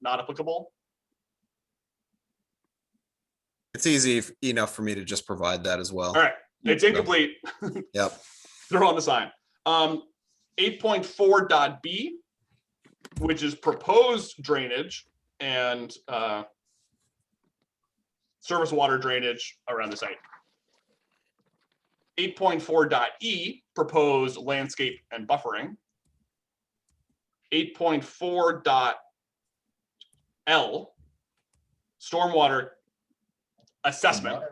not applicable? It's easy f- enough for me to just provide that as well. All right, it's Yeah. incomplete. Yep. They're on the sign. Um, eight point four dot B, which is proposed drainage and, uh, service water drainage around the site. Eight point four dot E, proposed landscape and buffering. Eight point four dot L, stormwater assessment.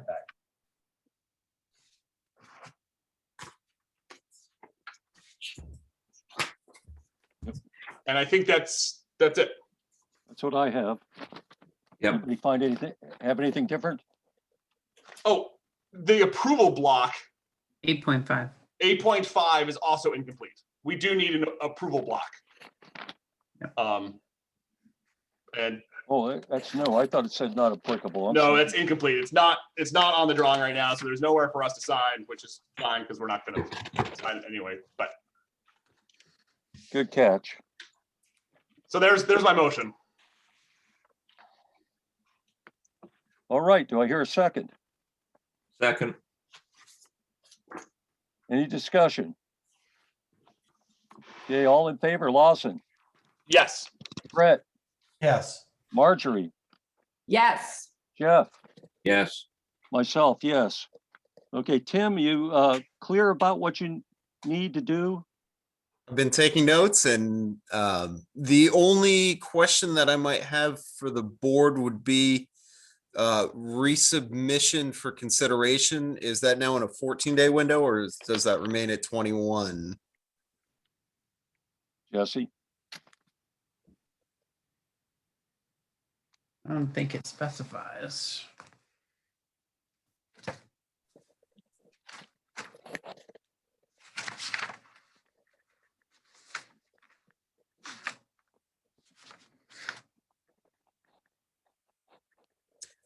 And I think that's, that's it. That's what I have. Yep. Anybody Find anything, have anything different? Oh, the approval block, Eight point five. eight point five is also incomplete. We do need an approval block. Um. And Oh, that- that's no, I thought it said not applicable. I'm no, sorry. it's incomplete. It's not, it's not on the drawing right now, so there's nowhere for us to sign, which is fine, because we're not gonna sign it anyway, but, Good catch. so there's, there's my motion. All right, do I hear a second? Second, Any discussion? Okay, all in favor, Lawson, Yes, Brett, Yes. Marjorie, Yes. Jeff, yes. myself, yes. Okay, Tim, you uh clear about what you need to do? I've been taking notes and um, the only question that I might have for the board would be uh, resubmission for consideration. Is that now in a 14-day window or is- does that remain at 21? Jesse, I don't think it specifies.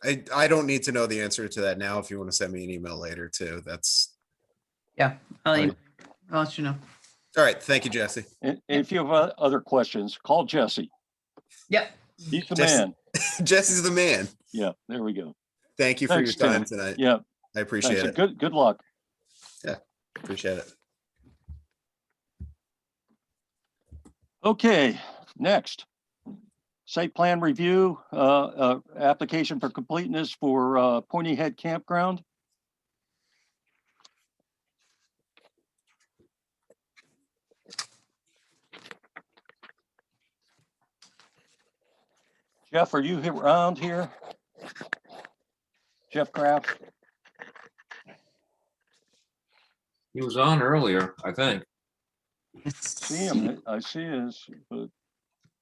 I, I don't need to know the answer to that now. If you want to send me an email later too, that's, I'll, Right. e- I'll let you know. all right. Thank you, Jesse. and and if you have uh, other questions, call Jesse. Yep. He's the Jesse. man. Jesse's the man. Yeah, there we go. Thank you for your Thanks, Tim. time tonight. I Yeah, thanks. appreciate and it. Good, good luck. Appreciate it. Okay, next. Site plan review, uh, uh, application for completeness for, uh, Pointy Head Campground. Jeff, are you he- around here? Jeff Kraft? He was on earlier, I think. See him, I see his, but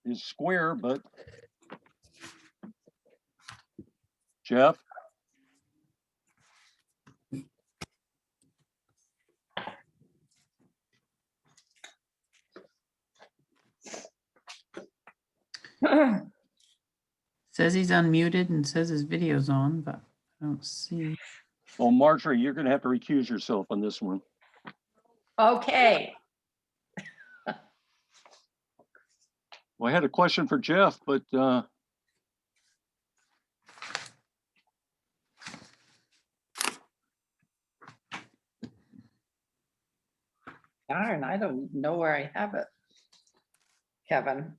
he's square, but. Jeff? Says he's unmuted and says his video's on, but I don't see. Well, Marjorie, you're gonna have to recuse yourself on this one. Okay, Well, I had a question for Jeff, but uh, darn, I don't know where I have it. Kevin,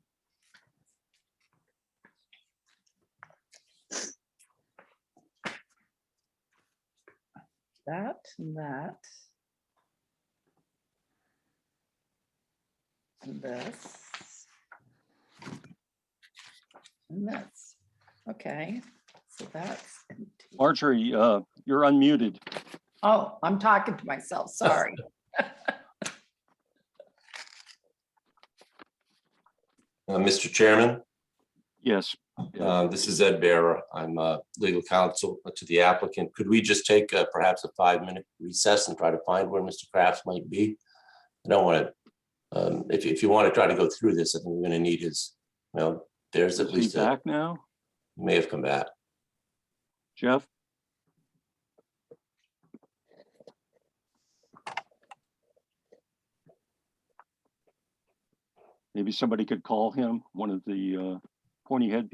that, and that. and This. And this, okay, so that's, empty. Marjorie, uh, you're unmuted. oh, I'm talking to myself, sorry. Uh, Mr. Chairman, Yes, Yeah. uh, this is Ed Bearer. I'm uh, legal counsel to the applicant. Could we just take uh, perhaps a five-minute recess and try to find where Mr. Kraft might be? I don't want to, if, if you want to try to go through this, I think we're going to need his, you know, there's at is he least, a- back now? he may have come back. Jeff? Maybe somebody could call him, one of the uh, pointy head people.